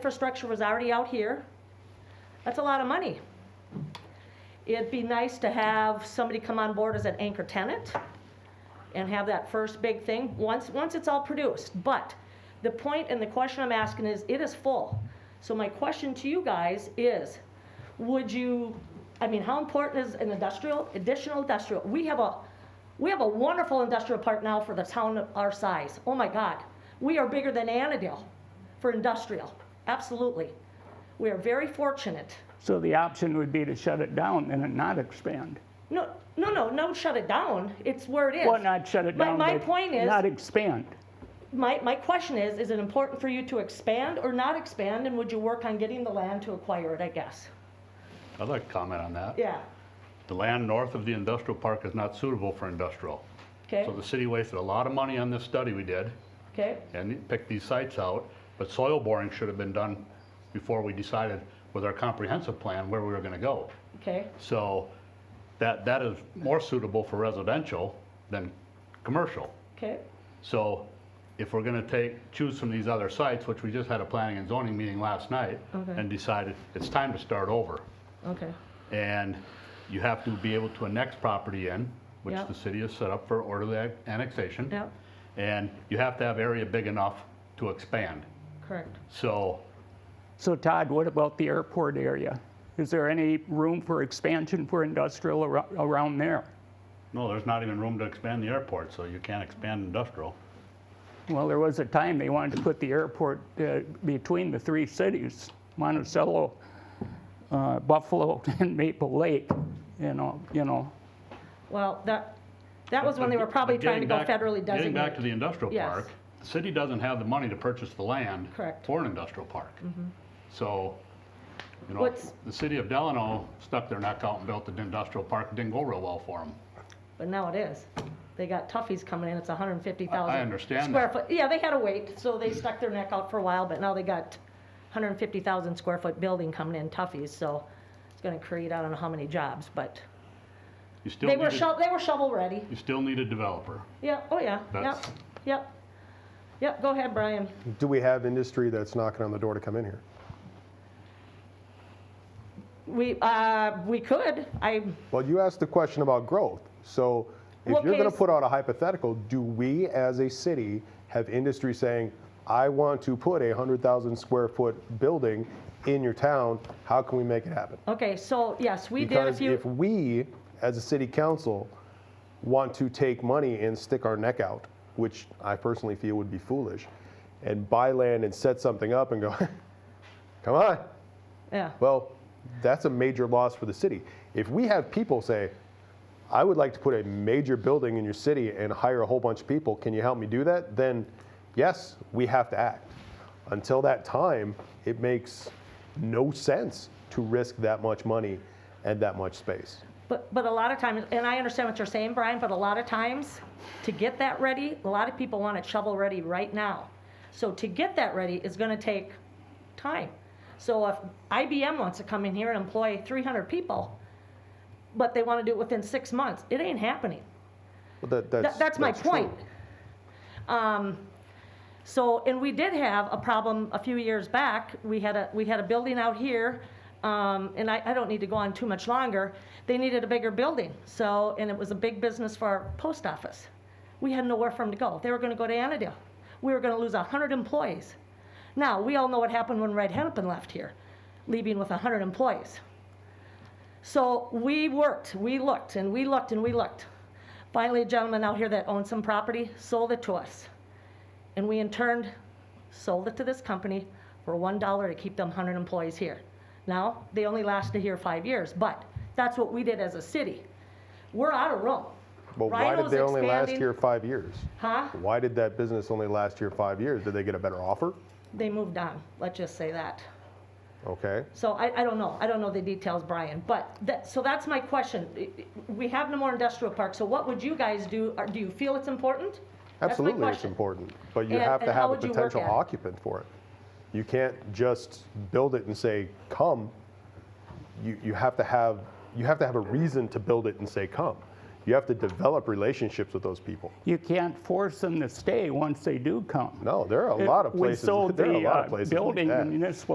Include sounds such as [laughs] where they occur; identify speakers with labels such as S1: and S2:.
S1: Infrastructure was already out here. That's a lot of money. It'd be nice to have somebody come on board as an anchor tenant and have that first big thing, once, once it's all produced. But the point and the question I'm asking is, it is full. So my question to you guys is, would you, I mean, how important is an industrial, additional industrial? We have a, we have a wonderful industrial park now for the town of our size. Oh my God, we are bigger than Annandale for industrial, absolutely. We are very fortunate.
S2: So the option would be to shut it down and then not expand.
S1: No, no, no, no, shut it down. It's where it is.
S2: Well, not shut it
S1: My-
S2: down,
S1: my
S2: but
S1: point is-
S2: Not e- expand.
S1: My, my question is, is it important for you to expand or not expand, and would you work on getting the land to acquire it, I guess?
S3: I'd like to comment on that.
S1: Yeah,
S3: The land north of the industrial park is not suitable for industrial.
S1: okay,
S3: So the city wasted a lot of money on this study we did
S1: okay,
S3: and picked these sites out, but soil boring should have been done before we decided with our comprehensive plan where we were gonna go.
S1: okay,
S3: So that, that is more suitable for residential than commercial.
S1: okay,
S3: So if we're gonna take, choose from these other sites, which we just had a planning and zoning meeting last night
S1: Okay.
S3: and decided it's time to start over.
S1: okay,
S3: And you have to be able to annex property in, which
S1: Yep.
S3: the city has set up for orderly an- annexation.
S1: Yep.
S3: And you have to have area big enough to expand.
S1: correct.
S3: So
S2: So Todd, what about the airport area? Is there any room for expansion for industrial ar- around there?
S3: no, there's not even room to expand the airport, so you can't expand industrial.
S2: Well, there was a time they wanted to put the airport uh, between the three cities, Monticello, uh, Buffalo, [laughs] and Maple Lake, you know, you know.
S1: Well, that, that was when they
S3: But
S1: were
S3: ge-
S1: probably
S3: but
S1: trying to go
S3: getting back-
S1: federally
S3: Getting back to
S1: designated.
S3: the industrial
S1: Yes.
S3: park, the city doesn't have the money to purchase the land.
S1: Correct. Mm-hmm.
S3: For an industrial park. So, you know,
S1: What's-
S3: the city of Delano stuck their neck out and built an industrial park, It didn't go real well for them.
S1: But now it is. They got toughies coming in, it's hundred and fifty thousand.
S3: I- I understand
S1: Square
S3: that.
S1: foot, yeah, they had to wait, so they stuck their neck out for a while, but now they got hundred and fifty thousand square foot building coming in toughies, so it's gonna create, I don't know how many jobs, but
S3: You still
S1: they
S3: need,
S1: were
S3: a-
S1: shovel, they were shovel ready.
S3: you still need a developer.
S1: Yeah, oh yeah, yep,
S3: That's-
S1: yep. Yep, go ahead, Brian.
S4: Do we have industry that's knocking on the door to come in here?
S1: We, uh, we could, I,
S4: Well, you asked the question about growth. So if
S1: What
S4: you're going to
S1: case-
S4: put out a hypothetical, do we as a city have industry saying, I want to put a 100,000 square foot building in your town? How can we make it happen?
S1: okay, so, yes, we did a
S4: Because if
S1: few,
S4: we, as a city council, want to take money and stick our neck out, which I personally feel would be foolish, and buy land and set something up and go, [laughs] come on,
S1: yeah,
S4: Well, that's a major loss for the city. If we have people say, I would like to put a major building in your city and hire a whole bunch of people, can you help me do that? Then, yes, we have to act. Until that time, it makes no sense to risk that much money and that much space.
S1: but, but a lot of times, and I understand what you're saying, Brian, but a lot of times, to get that ready, a lot of people want it shovel-ready right now. So to get that ready is gonna take time. So if IBM wants to come in here and employ three hundred people, but they wanna do it within six months, it ain't happening.
S4: But that, that's,
S1: That, that's my
S4: true.
S1: point. Um, so, and we did have a problem a few years back. We had a, we had a building out here, um, and I, I don't need to go on too much longer. They needed a bigger building, so, and it was a big business for our post office. We had nowhere for them to go. They were gonna go to Annandale. We were gonna lose a hundred employees. Now, we all know what happened when Red Hennepin left here, leaving with a hundred employees. So we worked, we looked, and we looked, and we looked. Finally, a gentleman out here that owned some property sold it to us. And we in turn sold it to this company for one dollar to keep them hundred employees here. Now, they only lasted here five years, but that's what we did as a city. We're out of room.
S4: But why did
S1: Rhino's
S4: they only last
S1: expanding.
S4: here five years?
S1: Huh?
S4: Why did that business only last here five years? Did they get a better offer?
S1: They moved on, let's just say that.
S4: Okay.
S1: So I, I don't know, I don't know the details, Brian, but that, so that's my question. We have no more industrial park, so what would you guys do? Or Do you feel it's important? That's my
S4: Absolutely, it's
S1: question.
S4: important, but you
S1: And-
S4: have to
S1: and how
S4: have a
S1: would you work
S4: potential
S1: at it?
S4: occupant for it. You can't just build it and say, come. You, you have to have, you have to have a reason to build it and say, come. You have to develop relationships with those people.
S2: You can't force them to stay once they do come.
S4: No, there are a lot of
S2: We
S4: places. [laughs]
S2: sold
S4: there are a
S2: the,
S4: lot
S2: uh,
S4: of places. like
S2: Building, the
S4: that.
S2: municipal